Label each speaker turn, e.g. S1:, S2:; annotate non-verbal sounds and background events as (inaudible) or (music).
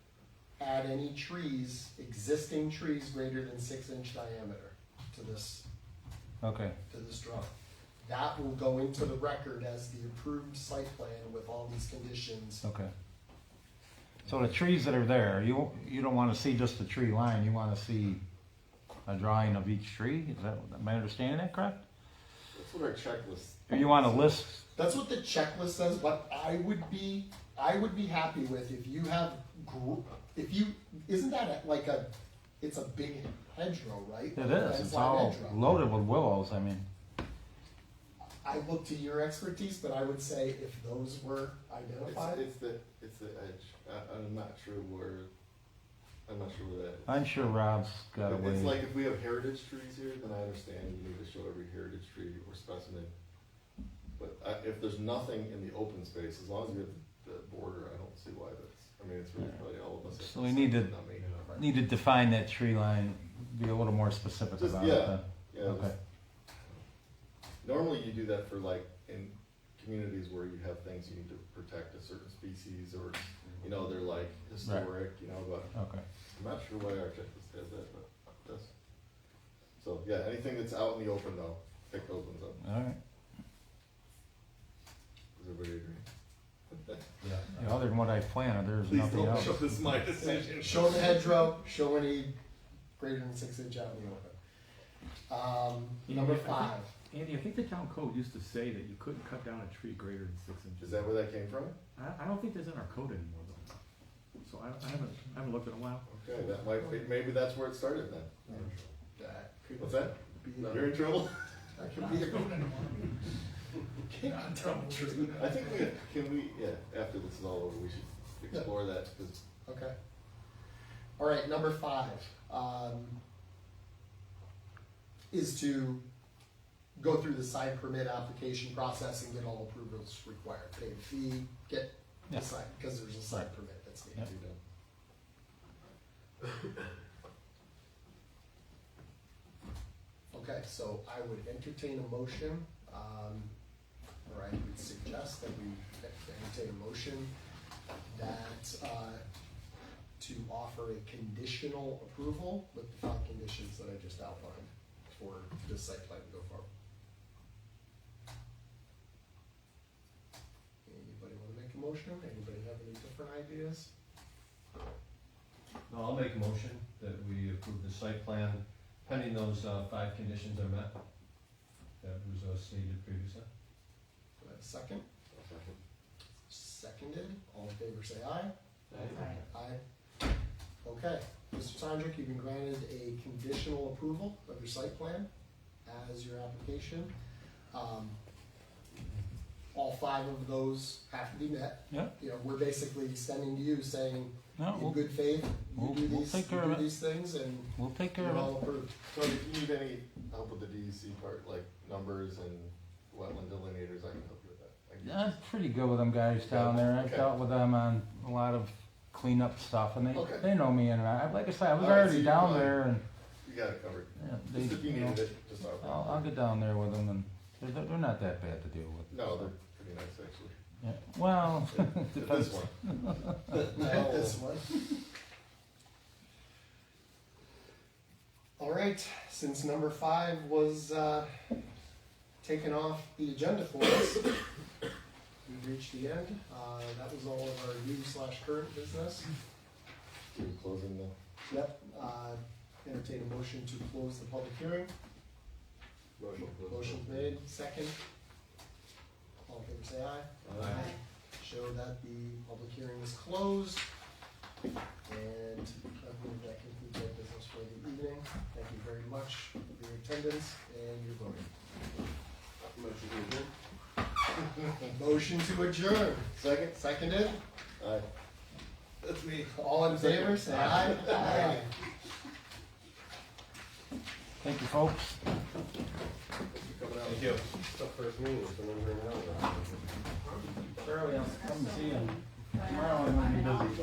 S1: add any trees, existing trees greater than six inch diameter to this,
S2: Okay,
S1: to this drawing. That will go into the record as the approved site plan with all these conditions.
S2: okay. So the trees that are there, you, you don't wanna see just the tree line, you wanna see a drawing of each tree? Is that, am I understanding that correct?
S3: That's what our checklist.
S2: Or you wanna list,
S1: That's what the checklist says, but I would be, I would be happy with if you have, gr- if you, isn't that a- like a, it's a big hedgerow, right?
S2: it is,
S1: Fence
S2: it's
S1: line
S2: all
S1: hedgerow.
S2: loaded with willows, I mean,
S1: I look to your expertise, but I would say if those were
S3: It's,
S1: identified,
S3: it's the it's the edge. I, I'm not sure where. I'm not sure where that. Is.
S2: I'm sure Rob's got a
S3: It- It's
S2: way.
S3: like if we have heritage trees here, then I understand you need to show every heritage tree or specimen. But I, if there's nothing in the open space, as long as you have the border, I don't see why that's, I mean, it's really probably all of us.
S2: So we need to-
S3: Not me.
S2: Need to define that tree line, be a little more specific
S3: Just-
S2: about it
S3: yeah.
S2: then.
S3: Yeah, just-
S2: Okay.
S3: Normally you do that for like, in communities where you have things you need to protect a certain species or, you know, they're like historic, you know, but
S2: Okay,
S3: I'm not sure why our checklist has that, but it does. So, yeah, anything that's out in the open though, pick those ones up.
S2: alright.
S3: Does everybody agree?
S2: Yeah, Other than what I planted, there's
S3: Please
S2: nothing
S3: don't
S2: else.
S3: show this my decision.
S1: show the hedgerow, show any greater than six inch out in the open. Um,
S4: Yeah,
S1: number
S4: I think-
S1: five,
S4: Andy, I think the town code used to say that you couldn't cut down a tree greater than six inches.
S3: Is that where that came from?
S4: I, I don't think that's in our code anymore though. So I, I haven't, I haven't looked in a while.
S3: Okay, that might, maybe that's where it started then.
S1: that could
S3: What's that?
S1: be,
S3: You're in trouble? (laughs)
S1: that could be a. Can't tell the truth.
S3: I think we, can we, yeah, after this is all over, we should explore that, because
S1: (laughs) Okay. All right, number five, um, is to go through the site permit application process and get all approvals required, pay the fee, get
S2: Yeah.
S1: the site, because there's a site permit that's needed.
S3: you know.
S1: (laughs) Okay, so I would entertain a motion, um, or I would suggest that we entertain a motion that, uh, to offer a conditional approval with the five conditions that I just outlined for this site plan to go forward. Anybody wanna make a motion? Anybody have any different ideas?
S5: No, I'll make a motion that we approve the site plan pending those uh, five conditions are met. That was uh, stated previously.
S1: Do I have a Second, seconded, all in favor say aye. Aye. Okay, Mr. Sandrick, you've been granted a conditional approval of your site plan as your application. Um, All five of those have to be met.
S2: Yeah.
S1: You know, we're basically extending to you, saying,
S2: No,
S1: in
S2: Oh, we'll,
S1: good faith, you
S2: we'll-
S1: do
S2: we'll
S1: these, you
S2: take care
S1: do
S2: of it.
S1: these things, and
S2: we'll take care
S1: you're
S2: of it.
S1: all approved.
S3: So if you need any help with the DEC part, like numbers and wetland delineators, I can help you with that. I can-
S2: Yeah, I'm pretty good with them guys down there. I've
S3: Okay.
S2: dealt with them on a lot of cleanup stuff, and they
S3: Okay.
S2: they know me. And I, like I said, I was
S3: All right, so
S2: already
S3: you
S2: down
S3: probably-
S2: there, and
S3: You got it covered.
S2: yeah, they,
S3: Just if you
S2: you know,
S3: needed it, just not.
S2: I'll, I'll get down there with them, and they're- they're, they're not that bad to deal with.
S3: No, they're
S2: so,
S3: pretty nice
S2: (laughs)
S3: actually.
S2: yeah. Well, (laughs)
S3: This
S2: depends.
S3: one.
S1: Not this one. (laughs) All right, since number five was uh, taken off the agenda for us, we reached the end. Uh, That was all of our new slash current business.
S3: Are you closing the?
S1: Yep, uh, entertain a motion to close the public hearing. Motion made, second. All in favor, say aye.
S3: Aye.
S1: Show that the public hearing is closed. And I believe that concludes our business for the evening. Thank you very much for your attendance and your voting.
S3: Motion to adjourn. (laughs)
S1: Motion to adjourn.
S3: Second?
S1: Seconded.
S3: Aye. That's me.
S1: All in favor, say aye. Aye.
S2: Thank you, folks.
S3: Thank you. The first meeting, so I'm gonna bring it up.
S2: Charlie, I'll come see you tomorrow. I'm gonna be busy.